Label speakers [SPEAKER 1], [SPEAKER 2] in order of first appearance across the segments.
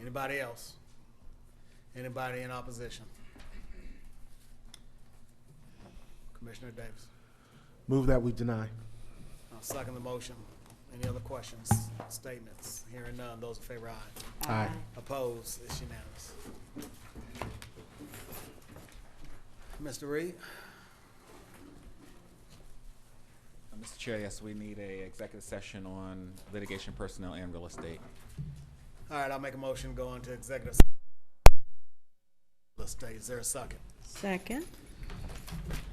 [SPEAKER 1] Anybody else? Anybody in opposition? Commissioner Davis,
[SPEAKER 2] Move that we deny.
[SPEAKER 1] I'll second the motion. Any other questions, statements? Hearing none, those in favor, aye.
[SPEAKER 2] Aye.
[SPEAKER 1] Opposed, it's unanimous. Mr. Reed,
[SPEAKER 3] Uh, Mr. Chair, yes, we need a executive session on litigation, personnel, and real estate.
[SPEAKER 1] all right, I'll make a motion to go into executive. s- Let's stay, is there a second?
[SPEAKER 4] Second.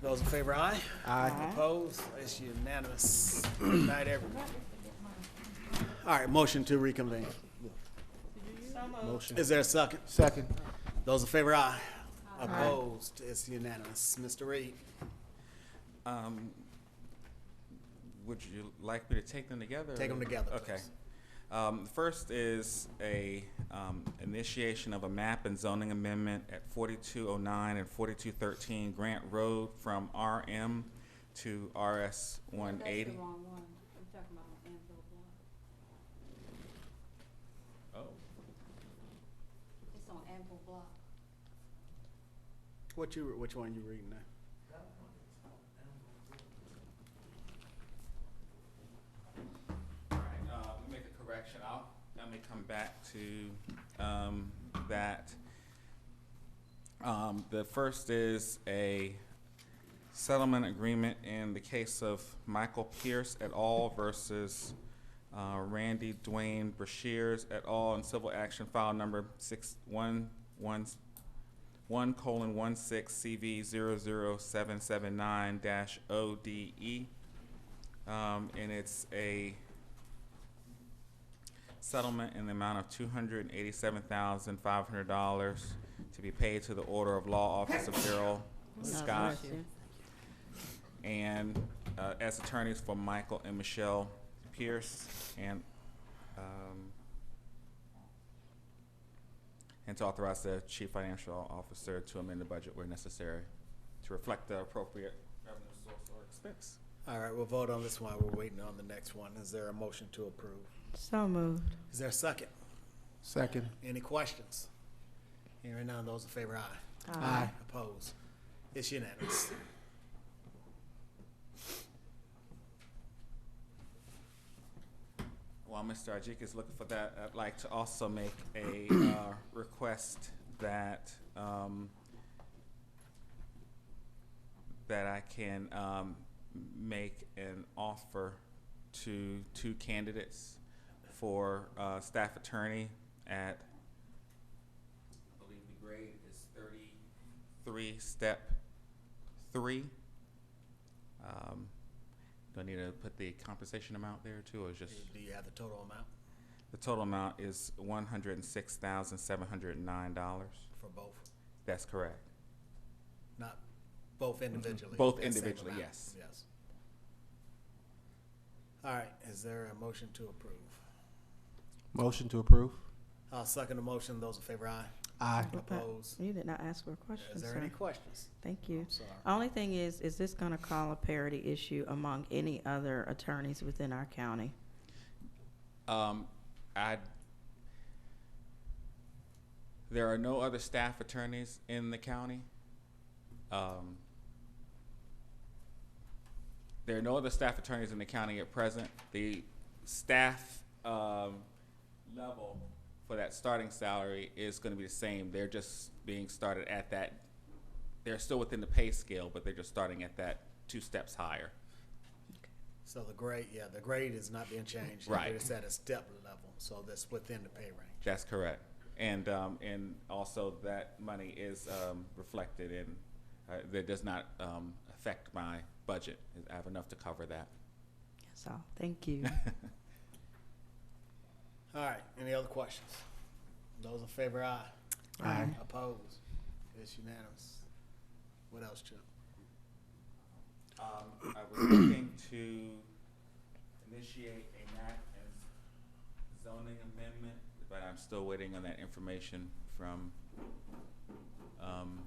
[SPEAKER 1] Those in favor, aye.
[SPEAKER 2] Aye.
[SPEAKER 1] Opposed, it's unanimous. Good night, everyone. All right, motion to reconvene.
[SPEAKER 2] Motion.
[SPEAKER 1] Is there a second?
[SPEAKER 2] Second.
[SPEAKER 1] Those in favor, aye. Opposed, it's unanimous. Mr. Reed,
[SPEAKER 3] Um, Would you like me to take them together?
[SPEAKER 1] Take 'em together,
[SPEAKER 3] Okay.
[SPEAKER 1] please.
[SPEAKER 3] Um, First is a um, initiation of a map and zoning amendment at 4209 and 4213 Grant Road from RM to RS 180.
[SPEAKER 5] That's the wrong one. We're talking about Anvil Block. It's on Anvil Block.
[SPEAKER 1] what you, which one you reading now?
[SPEAKER 3] All right, uh, let me make a correction. I'll, let me come back to, um, that. Um, the first is a settlement agreement in the case of Michael Pierce et al. versus, uh, Randy Dwayne Brashears et al. in civil action file number six one one one colon one six CV zero zero seven seven nine dash O D E. Um, and it's a settlement in the amount of two hundred and eighty-seven thousand, five hundred dollars to be paid to the Order of Law Office of Daryl Scott and uh, as attorneys for Michael and Michelle Pierce and um, and to authorize the chief financial officer to amend the budget where necessary to reflect the appropriate revenue source or expense.
[SPEAKER 1] All right, we'll vote on this while we're waiting on the next one. Is there a motion to approve?
[SPEAKER 4] So moved.
[SPEAKER 1] Is there a second?
[SPEAKER 2] Second.
[SPEAKER 1] Any questions? Hearing none, those in favor, aye.
[SPEAKER 2] Aye.
[SPEAKER 1] Opposed? It's unanimous.
[SPEAKER 3] While Mr. Ajik is looking for that, I'd like to also make a uh, request that, um, that I can um, make an offer to two candidates for uh, staff attorney at, I believe the grade is thirty-three, step three. Um, Do I need to put the compensation amount there too, or is just?
[SPEAKER 1] Do you have the total amount
[SPEAKER 3] The total amount is one hundred and six thousand seven hundred and nine dollars.
[SPEAKER 1] for both?
[SPEAKER 3] That's correct.
[SPEAKER 1] Not both individually?
[SPEAKER 3] Mm-hmm. Both
[SPEAKER 1] that same
[SPEAKER 3] individually,
[SPEAKER 1] amount?
[SPEAKER 3] yes.
[SPEAKER 1] Yes. All right, is there a motion to approve?
[SPEAKER 2] Motion to approve.
[SPEAKER 1] I'll second the motion. Those in favor, aye.
[SPEAKER 2] Aye.
[SPEAKER 1] Opposed?
[SPEAKER 4] You did not ask for a question,
[SPEAKER 1] Is there any
[SPEAKER 4] sir.
[SPEAKER 1] questions?
[SPEAKER 4] Thank you.
[SPEAKER 1] I'm sorry.
[SPEAKER 4] Only thing is, is this gonna call a parity issue among any other attorneys within our county?
[SPEAKER 3] Um, I, there are no other staff attorneys in the county. Um, there are no other staff attorneys in the county at present. The staff, um, level for that starting salary is gonna be the same. They're just being started at that, they're still within the pay scale, but they're just starting at that two steps higher.
[SPEAKER 1] So the grade, yeah, the grade is not being changed.
[SPEAKER 3] Right.
[SPEAKER 1] It's at a step level, so that's within the pay range.
[SPEAKER 3] That's correct. And, um, and also that money is, um, reflected in, uh, that does not, um, affect my budget. I have enough to cover that.
[SPEAKER 4] That's all. Thank you.
[SPEAKER 1] All right, any other questions? Those in favor, aye.
[SPEAKER 2] Aye.
[SPEAKER 1] Opposed? It's unanimous. What else, Chip?
[SPEAKER 3] Um, I was looking to initiate a map and zoning amendment, but I'm still waiting on that information from, um,